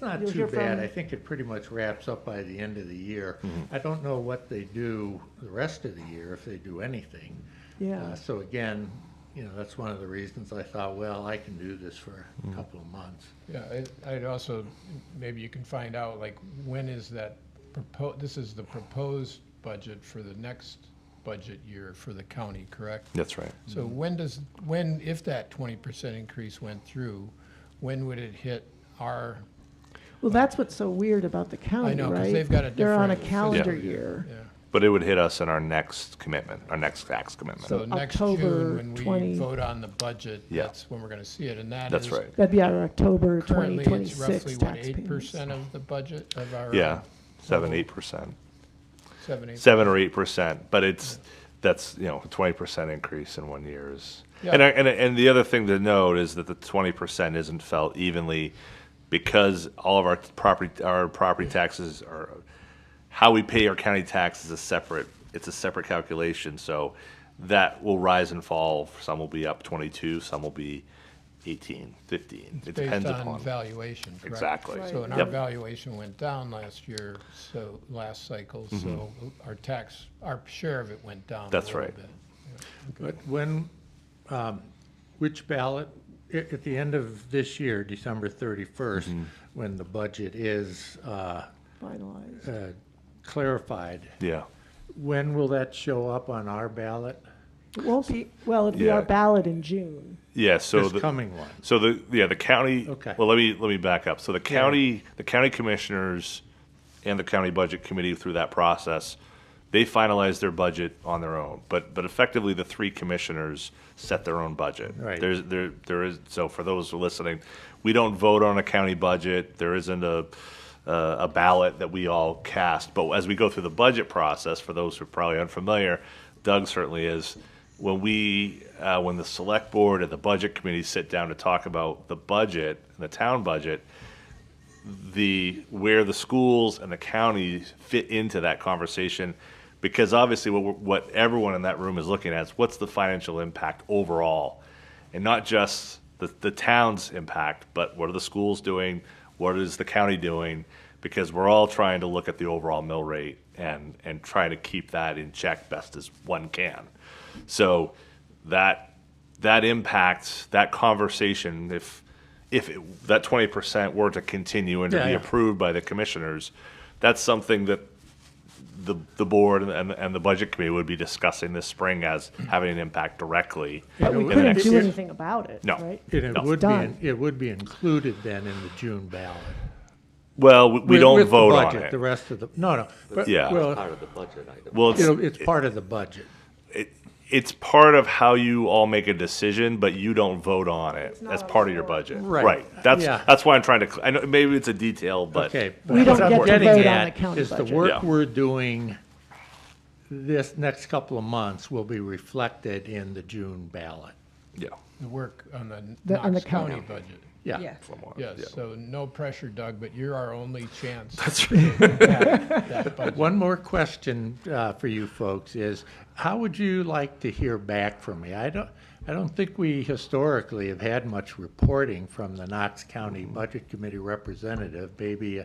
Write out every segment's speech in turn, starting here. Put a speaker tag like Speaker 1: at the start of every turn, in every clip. Speaker 1: Not
Speaker 2: You'll
Speaker 1: too
Speaker 2: hear
Speaker 1: bad.
Speaker 2: from-
Speaker 1: I think it pretty much wraps up by the end of the year.
Speaker 3: Mm-hmm.
Speaker 1: I don't know what they do the rest of the year, if they do anything.
Speaker 2: Yeah.
Speaker 1: Uh, So again, you know, that's one of the reasons I thought, well, I can do this for
Speaker 3: Mm-hmm.
Speaker 1: a couple of months.
Speaker 4: Yeah, I- I'd also, maybe you can find out, like, when is that proposed, this is the proposed budget for the next budget year for the county, correct?
Speaker 3: That's right.
Speaker 4: So when does, when, if that twenty percent increase went through, when would it hit our,
Speaker 2: Well, that's what's so weird about the county, right?
Speaker 4: know, 'cause they've got a
Speaker 2: They're on a
Speaker 4: different-
Speaker 2: calendar
Speaker 3: Yeah.
Speaker 2: year.
Speaker 4: yeah,
Speaker 3: But it would hit us in our next commitment, our next tax commitment.
Speaker 4: so next
Speaker 2: October
Speaker 4: June, when
Speaker 2: 20
Speaker 4: we vote on the budget,
Speaker 3: Yeah.
Speaker 4: that's when we're gonna see it, and that is.
Speaker 3: That's right.
Speaker 2: That'd be our October
Speaker 4: Currently, it's
Speaker 2: 2026
Speaker 4: roughly, what,
Speaker 2: tax
Speaker 4: eight
Speaker 2: payments.
Speaker 4: percent of the budget of our?
Speaker 3: Yeah, seven, eight percent,
Speaker 4: Seven, eight.
Speaker 3: seven or eight percent. But it's, that's, you know, twenty percent increase in one year is.
Speaker 4: Yeah.
Speaker 3: And, I- and, and the other thing to note is that the twenty percent isn't felt evenly because all of our property, our property taxes are, how we pay our county tax is a separate, it's a separate calculation. So that will rise and fall. Some will be up twenty-two, some will be eighteen, fifteen. It depends
Speaker 4: Based on
Speaker 3: upon.
Speaker 4: valuation, correct?
Speaker 3: Exactly.
Speaker 2: Right.
Speaker 4: So, and our
Speaker 3: Yep.
Speaker 4: valuation went down last year, so, last cycle, so our tax, our share of it went down a
Speaker 3: Mm-hmm. That's
Speaker 4: little
Speaker 3: right.
Speaker 4: bit.
Speaker 1: But when, um, which ballot, at, at the end of this year, December thirty-first,
Speaker 3: Mm-hmm.
Speaker 1: when the budget is, uh,
Speaker 2: Finalized.
Speaker 1: uh, clarified,
Speaker 3: Yeah.
Speaker 1: when will that show up on our ballot?
Speaker 2: It won't be, well, it'll be our
Speaker 3: Yeah.
Speaker 2: ballot in June.
Speaker 3: Yeah, so
Speaker 1: This
Speaker 3: the,
Speaker 1: coming one.
Speaker 3: so the, yeah, the county,
Speaker 1: Okay.
Speaker 3: well, let me, let me back up. So the county, the county commissioners and the county budget committee through that process, they finalize their budget on their own, but, but effectively the three commissioners set their own budget.
Speaker 1: Right.
Speaker 3: There's, there, there is, so for those who are listening, we don't vote on a county budget. There isn't a, uh, a ballot that we all cast. But as we go through the budget process, for those who are probably unfamiliar, Doug certainly is. When we, uh, when the select board and the budget committee sit down to talk about the budget, the town budget, the where the schools and the counties fit into that conversation because obviously what, we're- what everyone in that room is looking at is what's the financial impact overall and not just the, the town's impact but what are the schools doing what is the county doing because we're all trying to look at the overall mill rate and and try to keep that in check best as one can so that that impacts that conversation if if it, that twenty percent were to continue and to
Speaker 1: Yeah,
Speaker 3: be
Speaker 1: yeah.
Speaker 3: approved by the commissioners, that's something that the the board and, and, and the budget committee would be discussing this spring as having an impact directly.
Speaker 2: But we
Speaker 1: it-
Speaker 3: it-
Speaker 2: couldn't do
Speaker 1: it-
Speaker 2: anything about it,
Speaker 3: No.
Speaker 2: right?
Speaker 1: And it
Speaker 3: No.
Speaker 1: would
Speaker 2: Done.
Speaker 1: be, it would be included then in the June ballot.
Speaker 3: Well, we, we
Speaker 1: With-
Speaker 3: don't
Speaker 1: with the
Speaker 3: vote on
Speaker 1: budget, The
Speaker 3: it.
Speaker 1: rest of the, no, no. but-
Speaker 3: Yeah.
Speaker 1: Well,
Speaker 5: part of the budget item.
Speaker 3: Well, it's,
Speaker 1: it'll- it's part of the budget.
Speaker 3: it, it's part of how you all make a decision, but you don't vote on it
Speaker 2: not
Speaker 3: as
Speaker 2: on
Speaker 3: part
Speaker 2: the
Speaker 3: of your
Speaker 2: warrant.
Speaker 3: budget.
Speaker 1: Right.
Speaker 3: That's
Speaker 1: Yeah.
Speaker 3: that's why I'm trying to. cl- I know maybe it's a detail, but
Speaker 1: Okay. but
Speaker 2: We don't
Speaker 1: what I'm
Speaker 2: get to
Speaker 1: getting
Speaker 2: vote on
Speaker 1: at
Speaker 2: the county
Speaker 1: Is the
Speaker 2: budget.
Speaker 1: work
Speaker 3: Yeah.
Speaker 1: we're doing this next couple of months will be reflected in the June ballot.
Speaker 3: yeah,
Speaker 4: The work on the
Speaker 2: The- on the
Speaker 4: Knox County
Speaker 2: county.
Speaker 4: budget.
Speaker 1: Yeah.
Speaker 3: somewhat, yeah.
Speaker 4: Yes, so no pressure, Doug, but you're our only chance.
Speaker 3: That's right.
Speaker 4: That budget.
Speaker 1: One more question uh, for you folks is, how would you like to hear back from me? I don't, I don't think we historically have had much reporting from the Knox County Budget Committee representative. Maybe uh,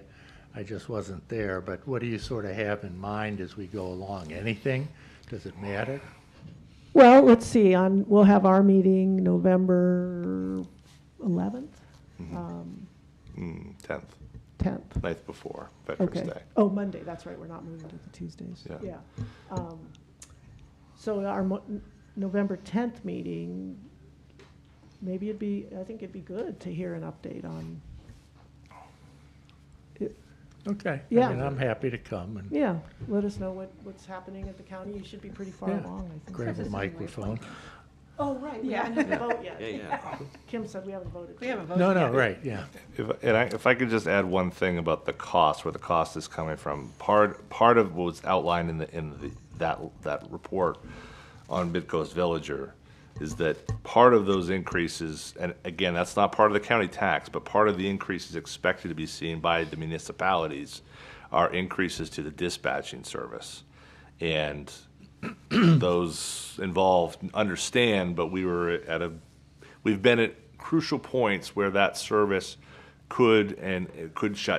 Speaker 1: I just wasn't there, but what do you sort of have in mind as we go along? Anything? Does it matter?
Speaker 2: Well, let's see, on, we'll have our meeting November 11th,
Speaker 3: Mm, tenth.
Speaker 2: 10th.
Speaker 3: night before Veterans
Speaker 2: Okay.
Speaker 3: Day.
Speaker 2: Oh, Monday, that's right, we're not moving to the Tuesdays.
Speaker 3: Yeah.
Speaker 2: Um, So our Mo- November 10th meeting, maybe it'd be, I think it'd be good to hear an update on,
Speaker 1: Okay.
Speaker 2: Yeah.
Speaker 1: I mean, I'm happy to come and
Speaker 2: yeah, let us know what, what's happening at the county. You should be pretty far
Speaker 1: Yeah.
Speaker 2: along, I think.
Speaker 1: grab a
Speaker 6: This is my
Speaker 1: microphone.
Speaker 2: Oh, right, we haven't had the vote
Speaker 5: Yeah,
Speaker 2: yet.
Speaker 5: yeah.
Speaker 2: Kim said we haven't voted.
Speaker 6: We
Speaker 2: yet.
Speaker 6: haven't voted
Speaker 1: No, no,
Speaker 6: yet.
Speaker 1: right, yeah.
Speaker 3: If, and I, if I could just add one thing about the cost, where the cost is coming from, part, part of what was outlined in the, in the, that, that report on Midcoast Villager is that part of those increases, and again, that's not part of the county tax, but part of the increases expected to be seen by the municipalities are increases to the dispatching service. And those involved understand, but we were at a, we've been at crucial points where that service could and it could shut